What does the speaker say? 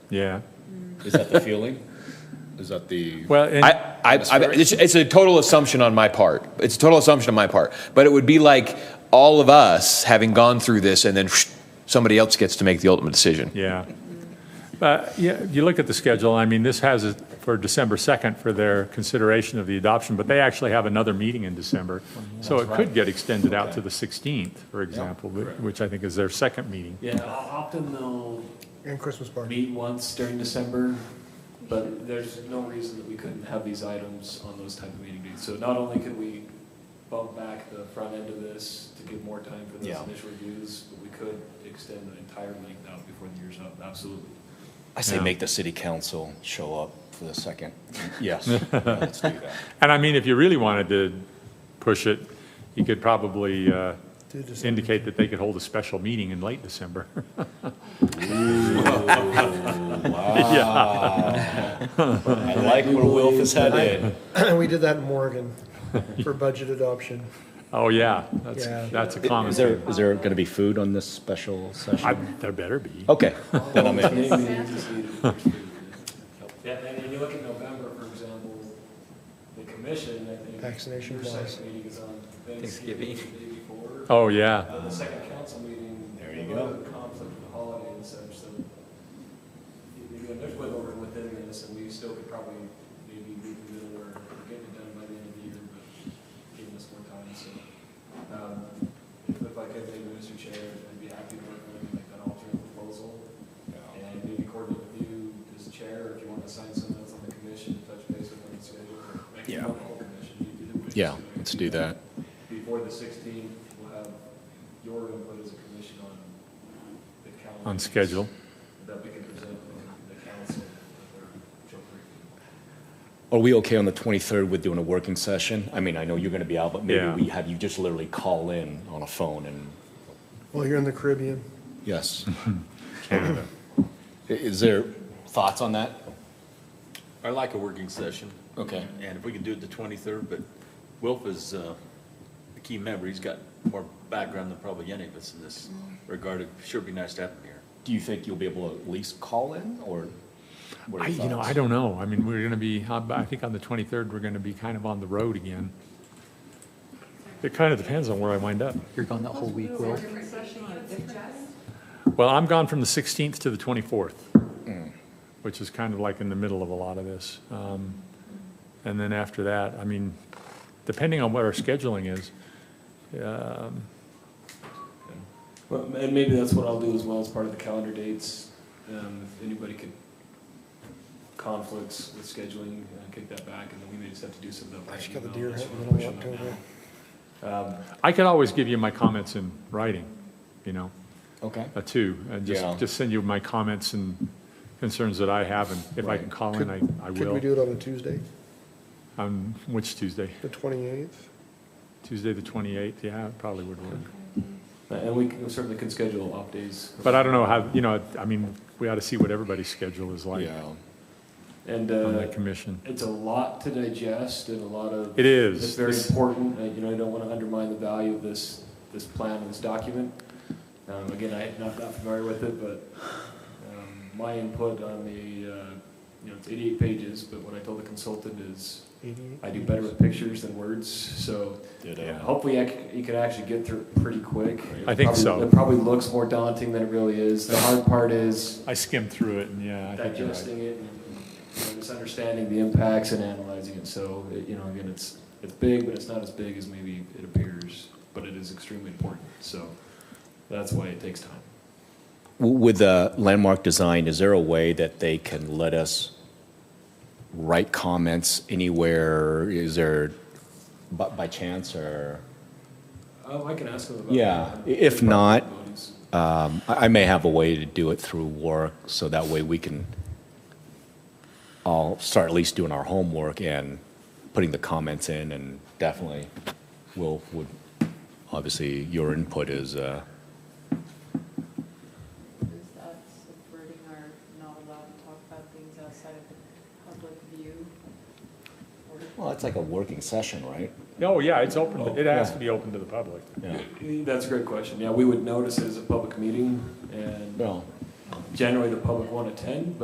yeah. Is that the feeling? Is that the? Well, and- I, I, I, it's, it's a total assumption on my part. It's a total assumption on my part. But it would be like all of us having gone through this, and then somebody else gets to make the ultimate decision. Yeah. But, yeah, you look at the schedule, I mean, this has it for December 2nd for their consideration of the adoption, but they actually have another meeting in December. So it could get extended out to the 16th, for example, whi- which I think is their second meeting. Yeah, often they'll And Christmas party. meet once during December, but there's no reason that we couldn't have these items on those type of meeting dates. So not only could we bump back the front end of this to give more time for those Yeah. initial reviews, but we could extend the entire length out before the year's up, absolutely. I say Yeah. make the city council show up for the second. Yes, let's do that. And I mean, if you really wanted to push it, you could probably uh, Do December. indicate that they could hold a special meeting in late December. I like where Wilf is headed. We did that in Morgan for budget adoption. Oh, yeah, that's, Yeah. that's a common Is there, thing. is there going to be food on this special I- session? There better be. Okay, then I'm in. Committee meetings is needed for review. Yeah, and then you look at November, for example, the commission, I think. Vaccination Your policy. second meeting is on Thanksgiving, the day before. Oh, yeah, Uh, The second council meeting. There you go. Conflict with the holiday and such, so you- you know, there's wiggle room within this, and we still could probably maybe meet in the middle or get it done by the end of the year, but giving us more time, so. um, If I could, maybe, Mr. Chair, I'd be happy to work with like an alternate proposal, and maybe coordinate with you as chair, or if you want to assign someone else on the commission, touch base with them, schedule, or make Yeah. it one whole commission, you do the wish. Yeah, let's do that. Before the 16th, we'll have your input as a commission on the calendar. on schedule. That we can present to the council. at their joint briefing. Are we okay on the 23rd with doing a working session? I mean, I know you're going to be out, but maybe Yeah. we have you just literally call in on a phone and. Well, you're in the Caribbean. Yes. Is there thoughts on that? I like a working session, Okay. and if we can do it the 23rd, but Wilf is uh, a key member. He's got more background than probably any of us in this regard. It sure be nice to have him here. Do you think you'll be able to at least call in or? what are I, your you know, thoughts? I don't know. I mean, we're going to be, I think on the 23rd, we're going to be kind of on the road again. It kind of depends on where I wind up. You're gone that whole week, Will? Well, I'm gone from the 16th to the 24th, Mm. which is kind of like in the middle of a lot of this. Um, And then after that, I mean, depending on what our scheduling is, um, Well, and maybe that's what I'll do as well as part of the calendar dates. Um, if anybody could conflicts with scheduling, uh, kick that back, and then we may just have to do some of that. I by just got the email, deer unless head you in the wanna middle of push on that October. now. Um, I could always give you my comments in writing, you know, Okay. uh, too, and Yeah. just, just send you my comments and concerns that I have, and if I can Right. call in, I, I will. Could we do it on a Tuesday, On which Tuesday? the 28th? Tuesday, the 28th, yeah, it probably would work. Uh, and we can- certainly can schedule off days. But I don't know how, you know, I mean, we ought to see what everybody's schedule is like Yeah. And, on that uh, commission. it's a lot to digest and a lot of. It is. It's very This- important, uh, you know, I don't want to undermine the value of this, this plan and this document. Um, Again, I'm not not familiar with it, but um, my input on the, uh, you know, it's 88 pages, but what I told the consultant is, I do better with pictures than words, so Ditto. hopefully I c- you can actually get through it pretty quick. I think Probably- so. It probably looks more daunting than it really is. The hard part is, I skimmed through it, and yeah, I think you're right. digesting it and you know, just understanding the impacts and analyzing it. So, it- you know, again, it's, it's big, but it's not as big as maybe it appears, but it is extremely important. So that's why it takes time. W- With the landmark design, is there a way that they can let us write comments anywhere? Is there, by, by chance or? Um, I can ask them about. Yeah, i- that. if not, Possibilities. um, I, I may have a way to do it through work, so that way we can all start at least doing our homework and putting the comments in and definitely will, would, obviously, your input is, uh, Is that subverting our not allowed to talk about things outside of the public view? Or- well, it's like a working session, right? Oh, yeah, it's open, it has to be open to the public. Yeah. That's a great question. Yeah, we would notice it as a public meeting and Well, generally the public won't attend, but